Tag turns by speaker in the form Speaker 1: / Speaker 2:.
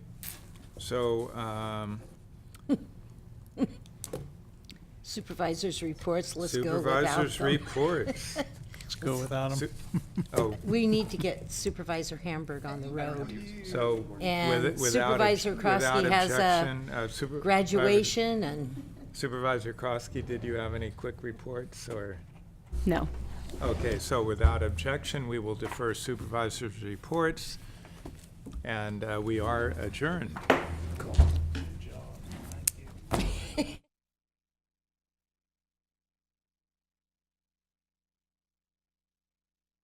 Speaker 1: So, um,
Speaker 2: Supervisors' reports, let's go without
Speaker 1: supervisors'
Speaker 2: them.
Speaker 1: reports.
Speaker 3: Let's go without
Speaker 1: Su-
Speaker 3: them.
Speaker 1: Oh,
Speaker 2: We need to get Supervisor Hamburg on the road.
Speaker 1: so with-
Speaker 2: And
Speaker 1: without,
Speaker 2: Supervisor
Speaker 1: obj- without
Speaker 2: Krosky has a
Speaker 1: objection, uh, super-
Speaker 2: Graduation and,
Speaker 1: Supervisor Krosky, did you have any quick reports or?
Speaker 4: No.
Speaker 1: Okay, so without objection, we will defer supervisors' reports, and uh, we are adjourned.